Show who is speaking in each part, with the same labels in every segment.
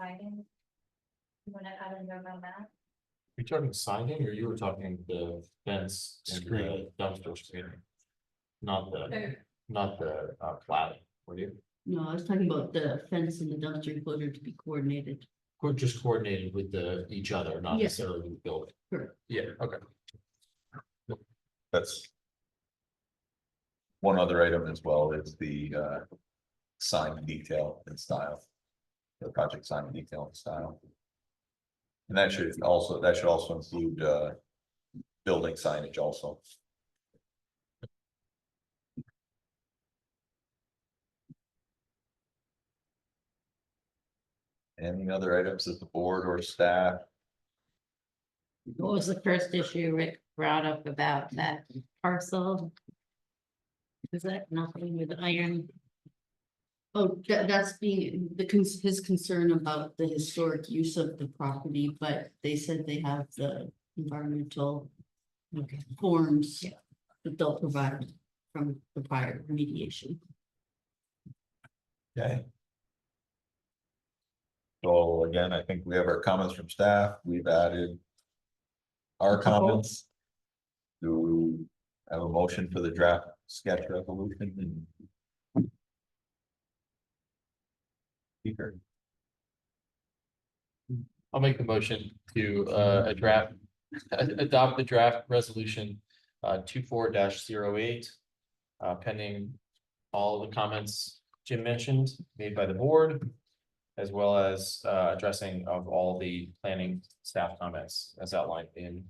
Speaker 1: siding? You wanna add a note on that?
Speaker 2: You're talking siding or you were talking the fence and the
Speaker 3: Screen.
Speaker 2: dumpster screening? Not the,
Speaker 1: Okay.
Speaker 2: not the uh cladding, were you?
Speaker 4: No, I was talking about the fence and the dumpster enclosure to be coordinated.
Speaker 2: Or just coordinated with the each other, not
Speaker 4: Yes.
Speaker 2: necessarily with the building?
Speaker 4: Correct.
Speaker 2: Yeah, okay.
Speaker 3: That's. One other item as well is the uh sign detail and style. The project sign detail and style. And that should also, that should also include uh building signage also. Any other items that the board or staff
Speaker 5: What was the first issue Rick brought up about that parcel? Is that nothing with iron?
Speaker 4: Oh, tha- that's being, the, cons- his concern about the historic use of the property, but they said they have the environmental. Forms
Speaker 5: Yeah.
Speaker 4: that they'll provide from the fire remediation.
Speaker 3: Okay. So again, I think we have our comments from staff, we've added. Our comments. Do we have a motion for the draft sketch resolution and? Speaker,
Speaker 2: I'll make the motion to uh a draft, a- adopt the draft resolution uh two four dash zero eight. Uh pending all the comments Jim mentioned made by the board. As well as uh addressing of all the planning staff comments as outlined in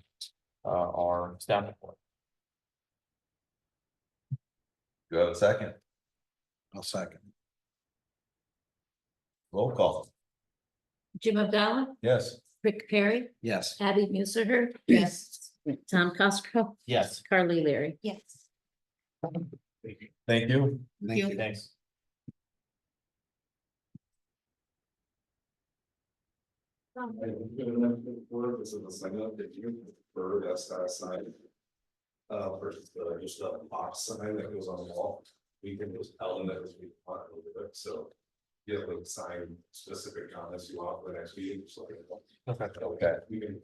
Speaker 2: uh our staff report.
Speaker 3: do you have a second?
Speaker 6: I'll second.
Speaker 3: Roll call,
Speaker 5: Jim Abdallah,
Speaker 3: yes,
Speaker 5: Rick Perry,
Speaker 6: Yes.
Speaker 5: Abby Musser,
Speaker 4: Yes.
Speaker 5: Tom Costco,
Speaker 2: Yes,
Speaker 5: Carly Leary.
Speaker 1: Yes.
Speaker 3: thank you.
Speaker 6: Thank you.
Speaker 2: thanks.
Speaker 1: Um,
Speaker 7: I think we're gonna have to work this is a sign up that you prefer that side sign. Uh, versus the, just a box sign that goes on the wall, we can just tell them that we want a little bit, so. You have like sign specific comments you want for the next meeting, so.
Speaker 2: Okay.
Speaker 3: Okay.
Speaker 7: We can.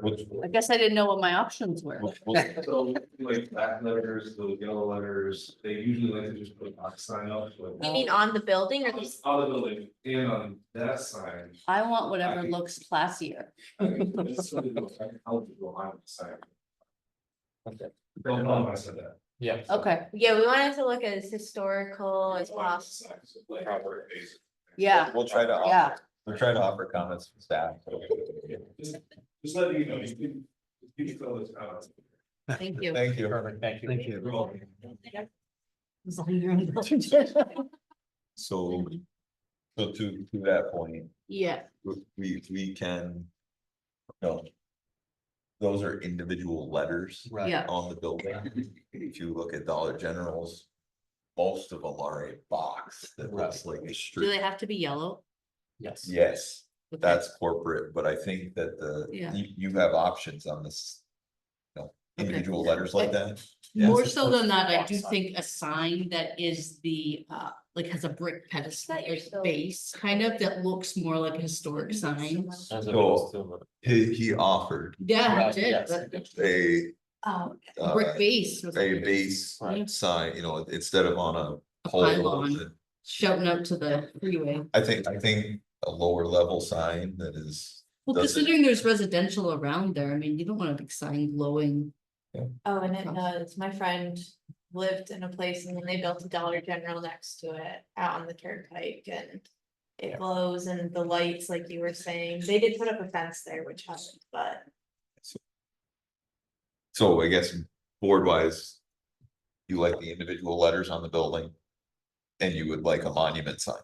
Speaker 3: Which-
Speaker 4: I guess I didn't know what my options were.
Speaker 3: We'll- we'll-
Speaker 7: So like black letters, those yellow letters, they usually like to just put a box sign up. like-
Speaker 1: You mean on the building or
Speaker 7: On
Speaker 1: the,
Speaker 7: the- on the building and on that sign.
Speaker 4: I want whatever looks classier.
Speaker 7: I mean, that's something that I- I'll do a line sign.
Speaker 2: Okay.
Speaker 7: Don't know if I said that.
Speaker 2: Yeah,
Speaker 4: Okay,
Speaker 1: yeah, we wanted to look at as historical as
Speaker 7: Line
Speaker 1: possible.
Speaker 7: sign, so like, proper basis.
Speaker 4: yeah,
Speaker 3: We'll try to,
Speaker 4: yeah.
Speaker 3: offer- we'll try to offer comments from staff.
Speaker 7: Just just let me know, you can, you can fill this out.
Speaker 5: Thank you.
Speaker 3: Thank you.
Speaker 2: perfect, thank you.
Speaker 6: Thank you.
Speaker 7: You're welcome.
Speaker 3: So, so to, to that point,
Speaker 4: Yeah,
Speaker 3: we, we can. No. Those are individual letters
Speaker 2: Right.
Speaker 4: yeah.
Speaker 3: on the building. If you look at Dollar General's, most of them are a box that looks like a
Speaker 4: Do
Speaker 3: street.
Speaker 4: they have to be yellow?
Speaker 2: Yes.
Speaker 3: Yes,
Speaker 4: Okay.
Speaker 3: that's corporate, but I think that the,
Speaker 4: Yeah.
Speaker 3: you, you have options on this. you know,
Speaker 4: Okay.
Speaker 3: individual letters like that. Yes.
Speaker 4: More so than that, I do think a sign that is the, uh, like has a brick pedestal,
Speaker 1: That you're
Speaker 4: like
Speaker 1: still-
Speaker 4: base, kind of that looks more like a historic sign.
Speaker 2: As opposed to-
Speaker 3: He, he offered
Speaker 4: Yeah,
Speaker 2: Right,
Speaker 4: it did,
Speaker 2: yes.
Speaker 4: but
Speaker 3: a,
Speaker 1: Oh,
Speaker 4: a
Speaker 3: uh,
Speaker 4: brick base. was
Speaker 3: a
Speaker 4: like
Speaker 3: base
Speaker 2: Right.
Speaker 3: sign, you know, instead of on
Speaker 4: A
Speaker 3: a pole.
Speaker 4: pylon shouting out to the freeway.
Speaker 3: I think, I think a lower level sign that is,
Speaker 4: Well,
Speaker 3: Does it-
Speaker 4: considering there's residential around there, I mean, you don't want a big sign glowing.
Speaker 1: oh, and it does. My friend lived in a place and then they built a Dollar General next to it out on the turnpike and.
Speaker 2: Yeah.
Speaker 1: It glows and the lights, like you were saying, they did put up a fence there, which helped, but
Speaker 3: so I guess board wise. You like the individual letters on the building. And you would like a monument sign.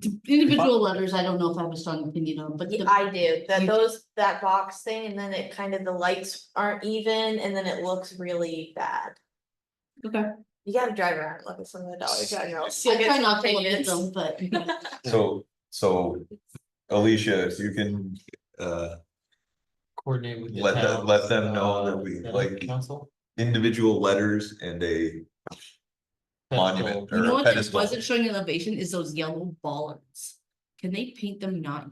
Speaker 4: D- Individual letters, I don't know if I have a strong opinion on, but
Speaker 1: Yeah,
Speaker 4: the-
Speaker 1: I do, that
Speaker 4: you-
Speaker 1: those, that box thing, and then it kind of, the lights aren't even, and then it looks really bad.
Speaker 4: Okay.
Speaker 1: You gotta drive around, and look at some of the Dollar Generals.
Speaker 4: I try not to look at them, but.
Speaker 3: So, so Alicia, if you can, uh,
Speaker 2: Coordinate with. the
Speaker 3: Let them-
Speaker 2: town,
Speaker 3: let them know
Speaker 2: uh,
Speaker 3: that we
Speaker 2: the
Speaker 3: like-
Speaker 2: Council.
Speaker 3: individual letters and a, Monument
Speaker 2: Council.
Speaker 3: or
Speaker 4: You
Speaker 3: a
Speaker 4: know what, that
Speaker 3: pedestal.
Speaker 4: wasn't showing elevation is those yellow bollards. Can they paint them not